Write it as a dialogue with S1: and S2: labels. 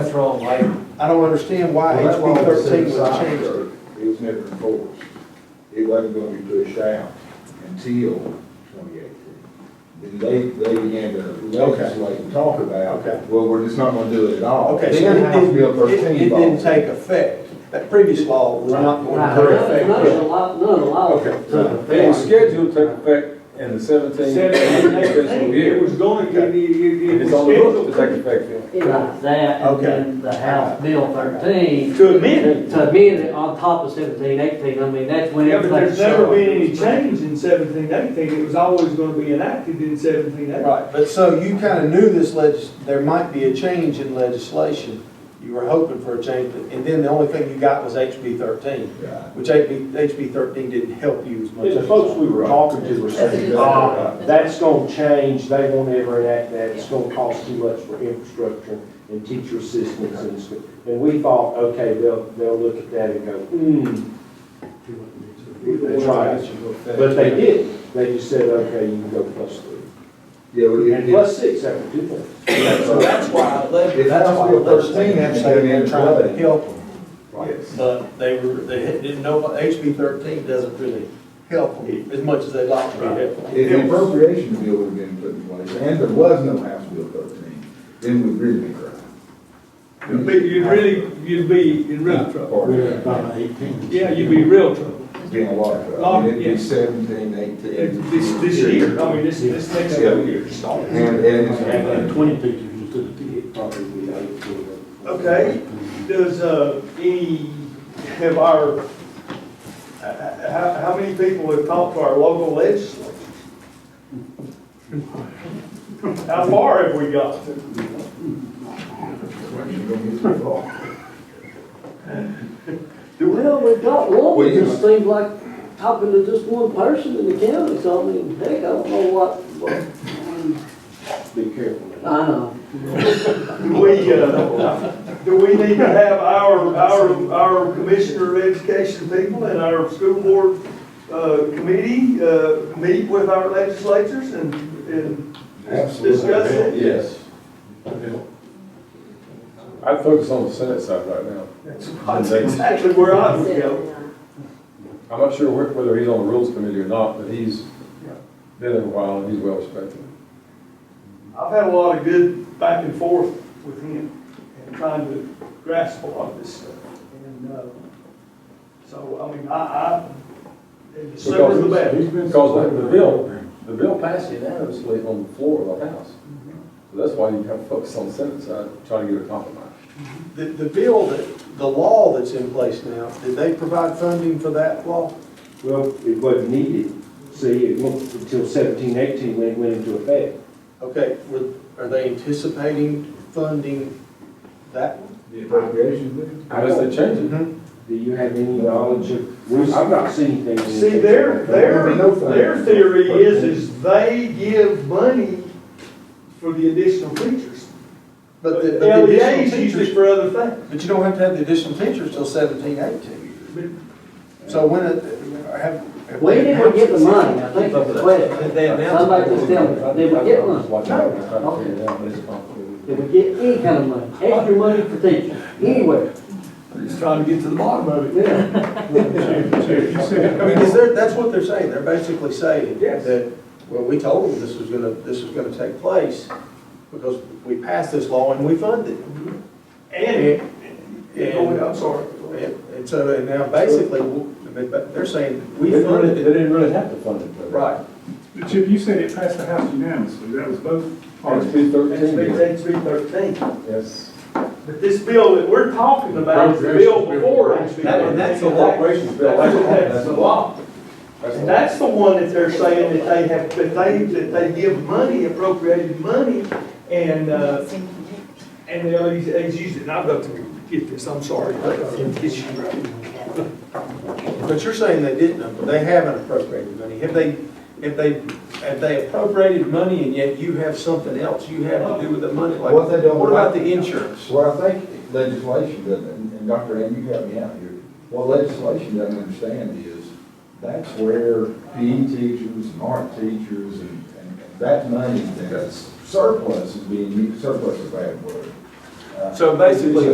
S1: That's wrong, like,
S2: I don't understand why
S3: Well, that
S2: HB
S3: law was
S2: thirteen
S3: set
S2: was
S3: aside,
S2: changed.
S3: though. It was never enforced. It wasn't gonna be pushed out until twenty eighteen. Then they, they began to legislate and talk about,
S2: Okay.
S3: well, we're just not gonna do it at all.
S2: Okay, so
S3: Then it has to be a
S2: it
S3: first
S2: didn't, it-
S3: team
S2: it didn't
S3: ball.
S2: take effect. That previous law was not going
S1: Right.
S2: to take effect.
S4: None of the law, none of the law.
S2: Okay.
S5: They were scheduled to take effect in the seventeenth fiscal
S6: It
S5: year.
S6: was going, it, it, it
S5: And
S6: was
S5: it's on the books to
S6: scheduled.
S5: take effect then.
S4: It was that, and
S2: Okay.
S4: then the House Bill thirteen,
S6: To amend it.
S4: to amend it on top of seventeen, eighteen, I mean, that's when
S6: Yeah, but
S4: everything.
S6: there's never
S4: started.
S6: been any change in seventeen eighteen, it was always gonna be enacted in seventeen eighteen.
S2: Right, but so you kind of knew this legis, there might be a change in legislation. You were hoping for a change, but- and then the only thing you got was HB thirteen,
S3: Right.
S2: which HB, HB thirteen didn't help you as much.
S1: the
S2: as
S1: folks we were talking to were saying, ah, that's gonna change, they won't ever enact that, it's gonna cost too much for infrastructure and teacher assistants and stuff. And we thought, okay, they'll, they'll look at that and go, hmm,
S2: That's right.
S1: but they didn't. They just said, okay, you can go plus three.
S3: Yeah, well,
S1: And
S3: it, it,
S1: plus six after two things.
S2: So that's why, leg-
S3: If that's
S2: that's why the
S3: what
S2: first
S3: they're
S2: thing
S3: saying,
S2: they were
S3: they're
S2: trying to
S3: trying to
S2: help them.
S3: yes.
S2: But they were, they didn't know, HB thirteen doesn't really help them as much as they'd like to be helped.
S3: If the appropriation bill would have been put in place, and there was no House Bill thirteen, then we'd really be crying.
S6: You'd be, you'd really, you'd be in real trouble.
S3: Or,
S6: Yeah, you'd be in real trouble.
S3: Being a lot of trouble.
S6: Lot,
S3: It'd be
S6: yeah.
S3: seventeen, eighteen.
S6: This, this year, I mean, this, this next seven years.
S3: And, and it's.
S1: twenty teachers instead of ten, probably we had.
S6: Okay. Does, uh, any, have our, uh, how, how many people have talked to our local legislature? How far have we got?
S4: Well, we've got one,
S3: Well,
S4: it
S3: you-
S4: just seems like talking to just one person in the county, so I mean, heck, I don't know what, what,
S1: Be careful.
S4: I know.
S6: Do we, uh, do we need to have our, our, our commissioner of education people and our school board, uh, committee, uh, meet with our legislatures and, and discuss it?
S5: Yes. I'd focus on the Senate side right now.
S6: That's exactly where I would go.
S5: I'm not sure whe- whether he's on the Rules Committee or not, but he's been there a while and he's well respected.
S6: I've had a lot of good back and forth with him and trying to grasp a lot of this stuff. And, uh, so, I mean, I, I, and the sooner the better.
S5: Because the bill, the bill passed unanimously on the floor of the House. So that's why you have to focus on the Senate side, trying to get a compromise.
S2: The, the bill that, the law that's in place now, did they provide funding for that law?
S1: Well, it wasn't needed. See, it went until seventeen, eighteen when it went into effect.
S2: Okay, were- are they anticipating funding that one?
S3: The appropriation bill?
S5: Unless they change it.
S2: Mm-hmm.
S1: Do you have any knowledge of, I've not seen anything. in-
S6: See, their, their, their theory is, is they give money for the additional teachers.
S2: But the, but the
S6: LEAs
S2: additional
S6: use it
S2: teachers,
S6: for other things.
S2: but you don't have to have the additional teachers till seventeen, eighteen. So when, it- have. have
S4: We
S2: they
S4: didn't
S2: announced
S4: get the
S2: it?
S4: money, I think that's the question.
S2: They announced it.
S4: Somebody just tell me, did we get one? Did we get any kind of money, extra money for teachers, anywhere?
S6: Just trying to get to the bottom of
S4: Yeah.
S2: I mean, is there, that's what they're saying, they're basically saying
S6: Yes.
S2: that, well, we told them this was gonna, this was gonna take place because we passed this law and we funded it.
S6: And,
S2: And-
S6: and, I'm sorry.
S2: And and so, and now basically, w- but- but they're saying, we funded
S5: They
S2: it,
S5: didn't really have to fund it. though.
S2: right.
S7: But Chip, you said it passed the House unanimously, that was both
S5: Or
S7: parties.
S5: it's been
S6: That's
S5: thirteen
S6: big,
S5: years.
S6: that's big thirteen.
S5: Yes.
S6: But this bill that we're talking about is the bill before HB
S2: That- and that's the
S6: thirteen.
S2: law.
S5: Appropriations bill, that's the law.
S6: That's the law.
S5: That's the
S6: And
S5: law.
S6: that's the one that they're saying that they have, that they, that they give money, appropriated money, and, uh, and the LEDs, LEDs used it, and I've got to get this, I'm sorry. I've got to get you right.
S2: But you're saying they didn't, they haven't appropriated money. Have they, have they, have they appropriated money and yet you have something else you have to do with the money? Like,
S3: What they don't
S2: What about
S3: like-
S2: the insurance?
S3: Well, I think legislation doesn't, and and Dr. Ann, you help me out here, what legislation doesn't understand is, that's where PE teachers and art teachers and, and and that money that's surplus is being, used. surplus is a bad word. Uh, So basically,